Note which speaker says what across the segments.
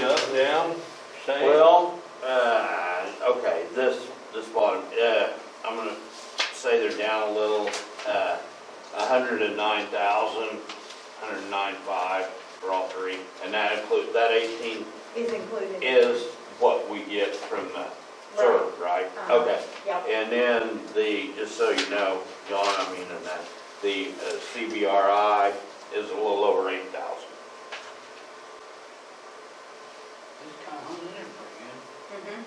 Speaker 1: Yeah, down, same.
Speaker 2: Well, uh, okay, this, this bottom, uh, I'm gonna say they're down a little, uh, a hundred and nine thousand, hundred and nine five for all three. And that includes, that eighteen
Speaker 3: is included.
Speaker 2: is what we get from the third, right?
Speaker 3: Uh-huh.
Speaker 2: Okay.
Speaker 3: Yep,
Speaker 2: And then the, just so you know, John, I mean, and that, the uh, CBRI is a little over eight thousand.
Speaker 4: It's kind of hung in there pretty good.
Speaker 3: mhm.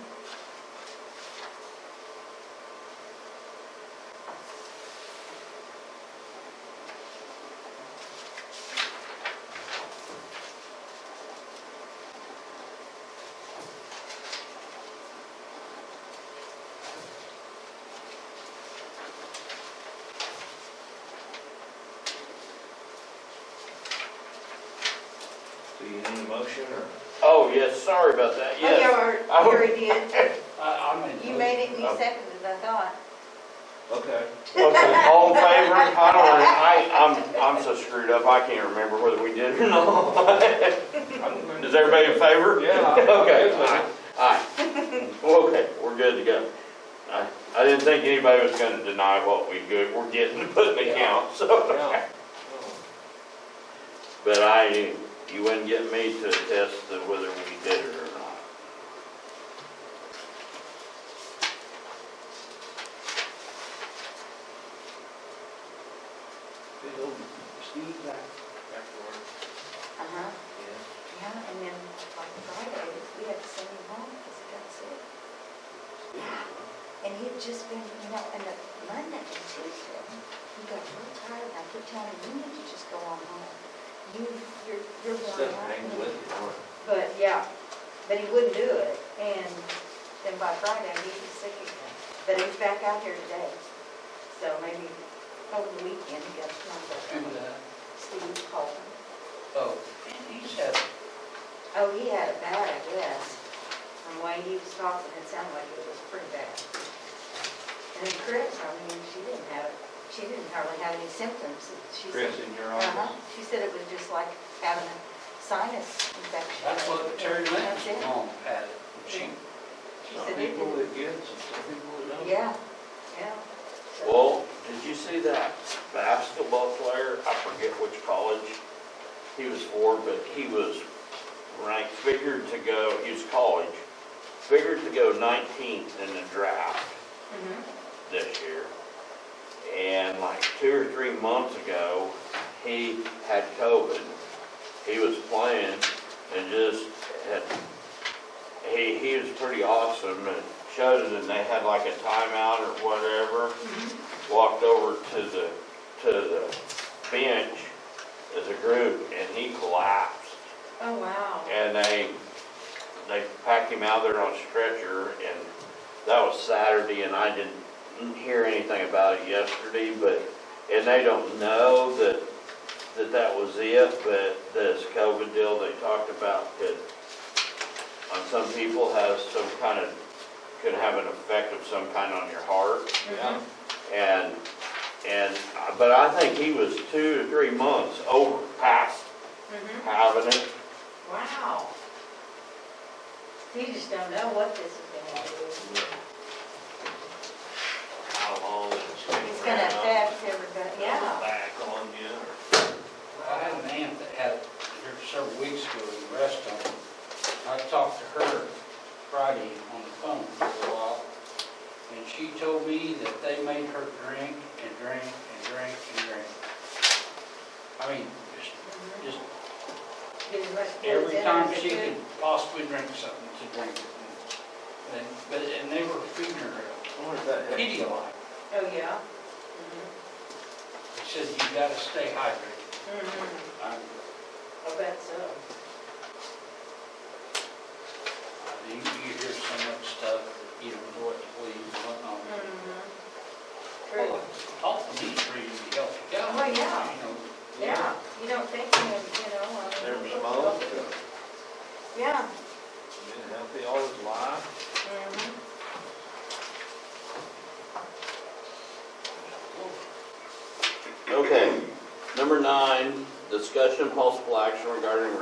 Speaker 1: Do you need a motion or?
Speaker 2: Oh, yes, sorry about that,
Speaker 3: Oh,
Speaker 2: yes.
Speaker 3: you
Speaker 2: I
Speaker 3: are- you
Speaker 2: would-
Speaker 3: already did.
Speaker 4: I, I'm in.
Speaker 3: You made it, and you seconded, I thought.
Speaker 1: Okay.
Speaker 2: Okay, all in favor? I don't, rem- I, I'm, I'm so screwed up, I can't remember whether we did or not.
Speaker 1: I'm going to-
Speaker 2: Is everybody in favor?
Speaker 1: Yeah.
Speaker 2: Okay, aye, aye. Well, Okay, we're good to go. I, I didn't think anybody was gonna deny what we good, we're getting, put in the count, so.
Speaker 1: Yeah.
Speaker 2: But I, you wouldn't get me to attest to whether we did it or not.
Speaker 4: Good old Steve back, back to work.
Speaker 3: Uh-huh, yeah, and then like Friday, we had to send him home because he got sick. And he had just been, you know, and the Monday and Tuesday, he got real tired, and I kept telling him, you need to just go on home. You, you're, you're
Speaker 1: Stuff
Speaker 3: worn
Speaker 1: hangs
Speaker 3: out.
Speaker 1: with you, don't it?
Speaker 3: But, yeah, but he wouldn't do it, and then by Friday, he was sick again. But he's back out here today, so maybe over the weekend, he got some
Speaker 4: And,
Speaker 3: of
Speaker 4: uh,
Speaker 3: Steve Colton.
Speaker 4: oh, and he's had,
Speaker 3: Oh, he had it bad, I guess. From the way he was talking, it sounded like it was pretty bad. And then Chris, I mean, she didn't have, it. she didn't hardly have any symptoms. She said-
Speaker 1: Chris in your
Speaker 3: Uh-huh.
Speaker 1: office.
Speaker 3: She said it was just like having a sinus infection.
Speaker 4: that's what Terry
Speaker 3: That's
Speaker 4: Lynn's
Speaker 3: it.
Speaker 4: mom had it. She,
Speaker 3: She
Speaker 1: Some
Speaker 3: said it
Speaker 1: people
Speaker 3: didn't-
Speaker 1: that get, it, some people that don't.
Speaker 3: Yeah, yeah. Oh, So-
Speaker 2: Well, did you see that basketball player? I forget which college he was for, but he was ranked, figured to go, he was college, figured to go 19th in the draft
Speaker 3: Mhm.
Speaker 2: this year. And like two or three months ago, he had COVID. He was playing and just had, he, he was pretty awesome and showed it and they had like a timeout or whatever. Walked over to the, to the bench as a group and he collapsed.
Speaker 3: Oh, wow.
Speaker 2: And they, they packed him out there on a stretcher, and that was Saturday, and I didn't hear anything about it yesterday, but, and they don't know that, that that was it, but this COVID deal they talked about could, on some people has some kind of, could have an effect of some kind on your heart.
Speaker 1: Yeah.
Speaker 2: And, and, but I think he was two to three months over past
Speaker 3: Mhm.
Speaker 2: having it.
Speaker 3: Wow. You just don't know what this is gonna do.
Speaker 1: How long it's been
Speaker 3: It's gonna
Speaker 1: around,
Speaker 3: affect everybody, yeah.
Speaker 1: Back on you
Speaker 4: I had an aunt that had it here several weeks ago in the restaurant. I talked to her Friday on the phone for a while, and she told me that they made her drink and drink and drink and drink. I mean, just,
Speaker 3: Mhm.
Speaker 4: just
Speaker 3: Getting rushed towards
Speaker 4: every
Speaker 3: dinner,
Speaker 4: time
Speaker 3: is it
Speaker 4: she
Speaker 3: good?
Speaker 4: could possibly drink something, she drank it. And, but, and they were feeding her
Speaker 1: or? I wonder if that
Speaker 4: a
Speaker 1: helps.
Speaker 4: Pedialyte.
Speaker 3: Oh, yeah?
Speaker 4: They said, you gotta stay hydrated.
Speaker 3: Mm-hmm.
Speaker 4: I,
Speaker 3: I bet so.
Speaker 4: You, you hear so much stuff, that you don't know what to believe and whatnot.
Speaker 3: Mm-hmm. True.
Speaker 4: Well, Talk to me for you to help you out.
Speaker 3: Well, yeah.
Speaker 4: you know.
Speaker 3: Yeah, you don't think, you know. uh,
Speaker 1: Never smoked, uh,
Speaker 3: Yeah.
Speaker 1: been healthy all his life.
Speaker 3: Mhm.
Speaker 2: Okay, number nine, discussion possible action regarding